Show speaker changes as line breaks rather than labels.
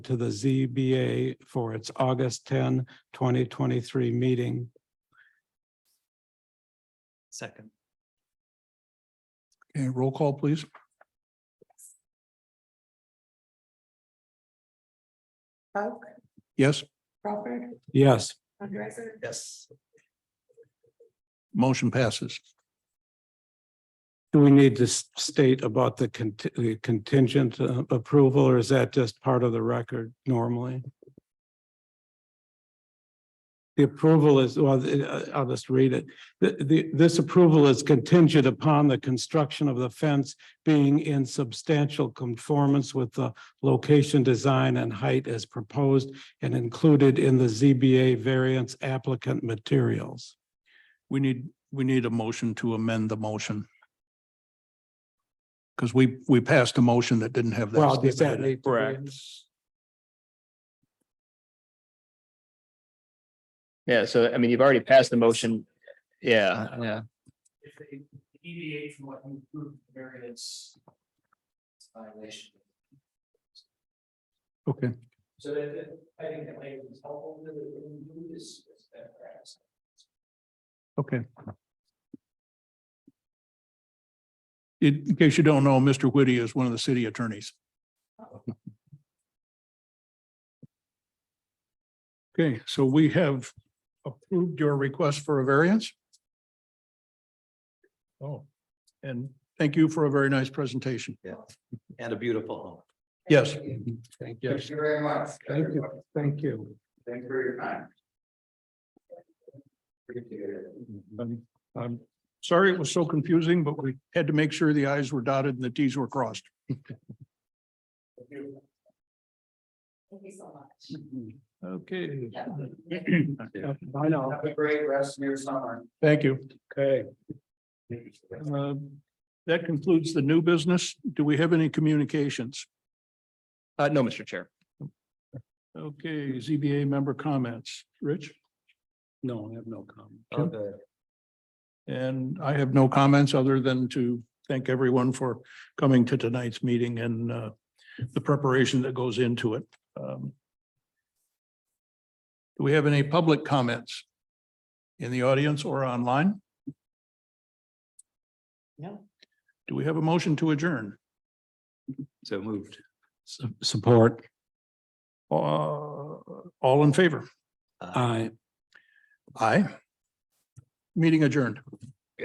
to the ZBA for its August 10, 2023 meeting.
Second.
Okay, roll call, please.
Coke,
Yes,
Crawford,
Yes,
Andresen,
Yes.
motion passes.
do we need to s- state about the conti- the contingent uh, approval or is that just part of the record normally? The approval is, well, uh, I'll just read it. The, the, this approval is contingent upon the construction of the fence being in substantial conformance with the location, design and height as proposed and included in the ZBA variance applicant materials.
We need, we need a motion to amend the motion. Because we, we passed a motion that didn't have that.
Well, does
statement
that
in it.
need? to be in?
Yeah, so I mean, you've already passed the motion. Yeah, yeah.
If they deviate from what you approved variance. it's a Violation.
Okay,
So that, that- I think that language is helpful to the, to this, this best practice.
okay. In in case you don't know, Mr. Whitty is one of the city attorneys. Okay, so we have approved your request for a variance. Oh, and thank you for a very nice presentation.
And a beautiful home.
Yes.
Thank
you.
Thank you very much.
Thank you. Thank you.
Thanks for your time. Appreciate it.
Um, I'm sorry it was so confusing, but we had to make sure the i's were dotted and the t's were crossed.
Thank you.
thank you so much.
Okay.
I know.
Have a great rest of your summer.
Thank you.
Okay.
Um, That concludes the new business. Do we have any communications?
Uh, no, Mr. Chair.
Okay, ZBA member comments. Rich?
No, I have no comment.
Okay.
And I have no comments other than to thank everyone for coming to tonight's meeting and uh, the preparation that goes into it. Um, Do we have any public comments in the audience or online?
No.
Do we have a motion to adjourn?
So moved.
Support.
Uh, All in favor?
I.
Aye. Meeting adjourned.